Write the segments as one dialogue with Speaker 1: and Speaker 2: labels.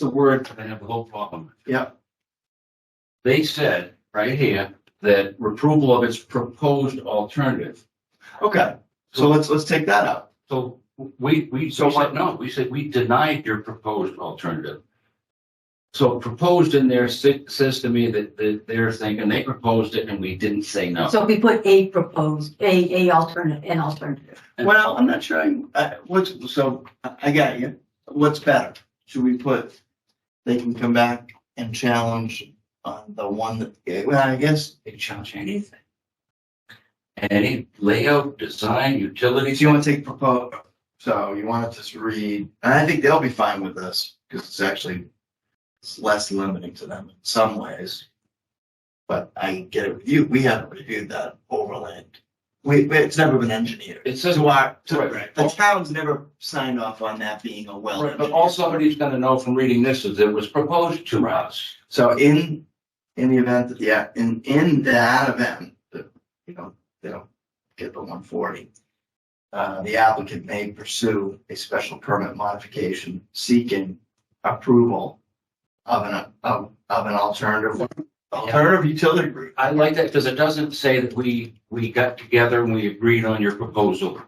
Speaker 1: the word that I have the whole problem. with.
Speaker 2: Yep.
Speaker 1: They said right here that approval of its proposed alternative.
Speaker 2: Okay, so let's, let's take that out.
Speaker 1: So we, we,
Speaker 2: So
Speaker 1: so
Speaker 2: what-
Speaker 1: said, no, we said we denied your proposed alternative. So proposed in there si- says to me that, that they're thinking they proposed it and we didn't say no.
Speaker 3: So we put a proposed, a, a alternative, an alternative.
Speaker 2: Well, I'm not sure, I- I, what's, so, I I got you. What's better? Should we put, they can come back and challenge on the one that, eh, well, I guess,
Speaker 1: They challenge anything. Any layout, design, utilities.
Speaker 2: if you want to take propose, so you want to just read, and I think they'll be fine with this, because it's actually, it's less limiting to them in some ways. But I get it with you, we haven't reviewed that overland. We, we- it's never been engineered.
Speaker 1: It says.
Speaker 2: To our,
Speaker 1: Right,
Speaker 2: to,
Speaker 1: right.
Speaker 2: the town's never signed off on that being a well.
Speaker 1: Right, But all somebody's gonna know from reading this is it was proposed to us.
Speaker 2: So in, in the event, that yeah, in, in that event, that, you know, they don't get the one forty. Uh, the applicant may pursue a special permit modification seeking approval of an, of, of an alternative, alternative utility route.
Speaker 1: I like that because it doesn't say that we, we got together and we agreed on your proposal.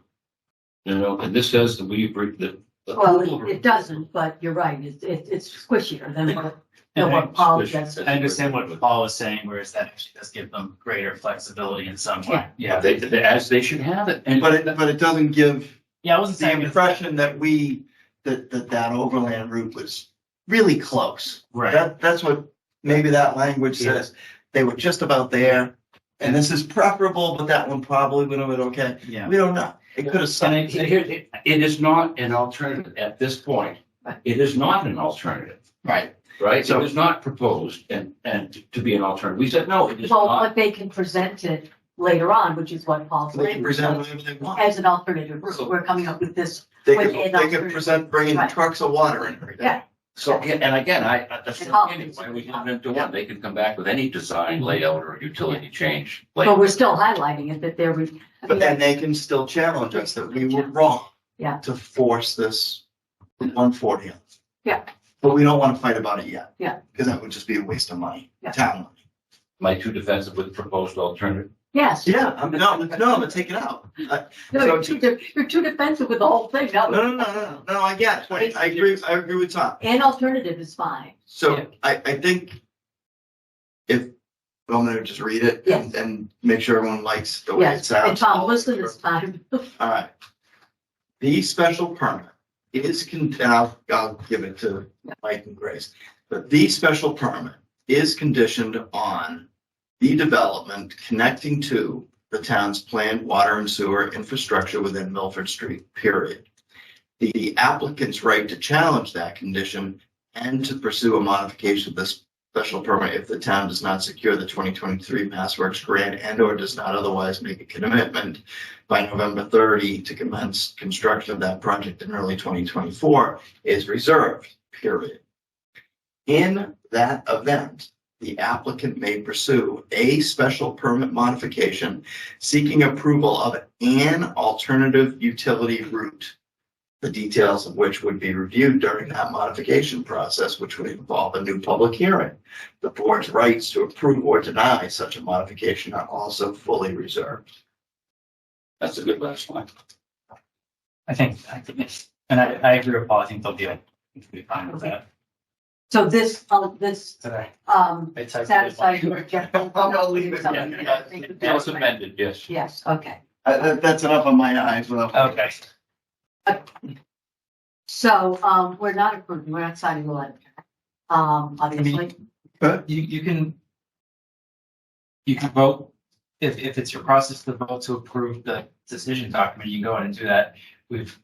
Speaker 1: You know, and this says that we agreed that.
Speaker 3: Well, it- it doesn't, but you're right, it's, it's it's squishier than what, than what Paul just said.
Speaker 4: I understand what Paul is saying, whereas that actually does give them greater flexibility in some way.
Speaker 1: Yeah, they, they- as they should have it. And
Speaker 2: But it, but it doesn't give
Speaker 4: Yeah, I wasn't
Speaker 2: the
Speaker 4: saying.
Speaker 2: impression that we, that, that that overland route was really close.
Speaker 4: Right,
Speaker 2: That, that's what, maybe that language
Speaker 1: Yeah.
Speaker 2: says, they were just about there, and this is preferable, but that one probably would have been okay.
Speaker 4: yeah.
Speaker 2: We don't know. It could have
Speaker 1: And
Speaker 2: signed.
Speaker 1: it, it- it- it is not an alternative at this point. It is not an alternative,
Speaker 2: Right.
Speaker 1: right? It
Speaker 2: So-
Speaker 1: was not proposed and, and to be an alternative. We said, no, it is
Speaker 3: Well,
Speaker 1: not.
Speaker 3: but they can present it later on, which is what Paul's
Speaker 2: They can
Speaker 3: saying,
Speaker 2: present whatever they want.
Speaker 3: as an alternative route, we're coming up with this.
Speaker 2: They
Speaker 3: with
Speaker 2: could,
Speaker 3: an
Speaker 2: they could
Speaker 3: alternative-
Speaker 2: present bringing
Speaker 3: Right.
Speaker 2: trucks of water in every day.
Speaker 3: Yeah.
Speaker 1: So, and and again, I, I- that's
Speaker 3: And
Speaker 1: the
Speaker 3: all-
Speaker 1: beginning, why we didn't into one, they can come back with any design layout or utility change.
Speaker 3: But
Speaker 1: later.
Speaker 3: we're still highlighting it that there was. I
Speaker 2: But
Speaker 3: mean,
Speaker 2: then they can still challenge us that we were wrong.
Speaker 3: Yeah.
Speaker 2: To force this one forty.
Speaker 3: Yeah.
Speaker 2: But we don't want to fight about it yet.
Speaker 3: Yeah.
Speaker 2: Because that would just be a waste of money,
Speaker 3: Yeah.
Speaker 2: town money.
Speaker 1: My two defensive with proposed alternative.
Speaker 3: Yes.
Speaker 2: Yeah, I'm, no, no, I'm gonna take it out. I-
Speaker 3: No,
Speaker 2: So-
Speaker 3: you're too, de- you're too defensive with the whole thing,
Speaker 2: No, no,
Speaker 3: no,
Speaker 2: no, no, no, I get it. I agree, I agree with Tom.
Speaker 3: an alternative is fine,
Speaker 1: Yeah.
Speaker 2: So I, I think if, well, I'm gonna just read it and, and make sure everyone likes the way it
Speaker 3: yes, and
Speaker 2: sounds.
Speaker 3: Tom, listen this time,
Speaker 2: All right. The special permit is, con- and I'll, I'll give it to Mike and Grace, but the special permit is conditioned on the development connecting to the town's planned water and sewer infrastructure within Milford Street, period. The applicant's right to challenge that condition and to pursue a modification of this special permit if the town does not secure the twenty twenty-three Mass Works grant and or does not otherwise make a commitment by November thirty to commence construction of that project in early twenty twenty-four is reserved, period. In that event, the applicant may pursue a special permit modification seeking approval of an alternative utility route. The details of which would be reviewed during that modification process, which would involve a new public hearing. The board's rights to approve or deny such a modification are also fully reserved.
Speaker 1: That's a good last line.
Speaker 4: I think, I think it's, and I, I agree with Paul. I think they'll be, they'll be fine with that.
Speaker 3: so this, uh, this,
Speaker 4: Today.
Speaker 3: um,
Speaker 4: It's
Speaker 3: satisfies your general.
Speaker 2: I'll Oh, leave it.
Speaker 3: I think that
Speaker 1: As
Speaker 3: that's-
Speaker 1: amended, yes.
Speaker 3: Yes, okay,
Speaker 2: Uh, that, that's enough on my eyes. Well,
Speaker 4: Okay.
Speaker 3: so, um, we're not approving, we're not signing the letter, um, obviously,
Speaker 4: You, you can, you can vote, if, if it's your process to vote to approve the decision document, you can go ahead and do that. We've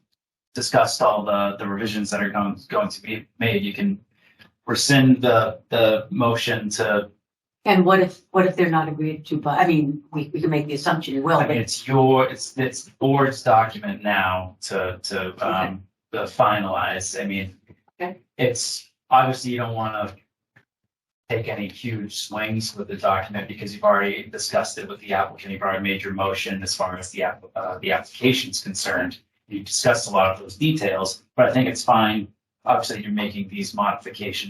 Speaker 4: discussed all the, the revisions that are going, going to be made. You can rescind the, the motion to,
Speaker 3: and what if, what if they're not agreed to, but, I mean, we, we can make the assumption it will,
Speaker 4: I mean,
Speaker 3: but
Speaker 4: it's your, it's, it's the board's document now to, to, um, to finalize. I mean,
Speaker 3: Okay.
Speaker 4: it's, obviously you don't want to take any huge swings with the document because you've already discussed it with the applicant. You've already made your motion as far as the app, uh, the application's concerned. You've discussed a lot of those details, but I think it's fine obviously you're making these modifications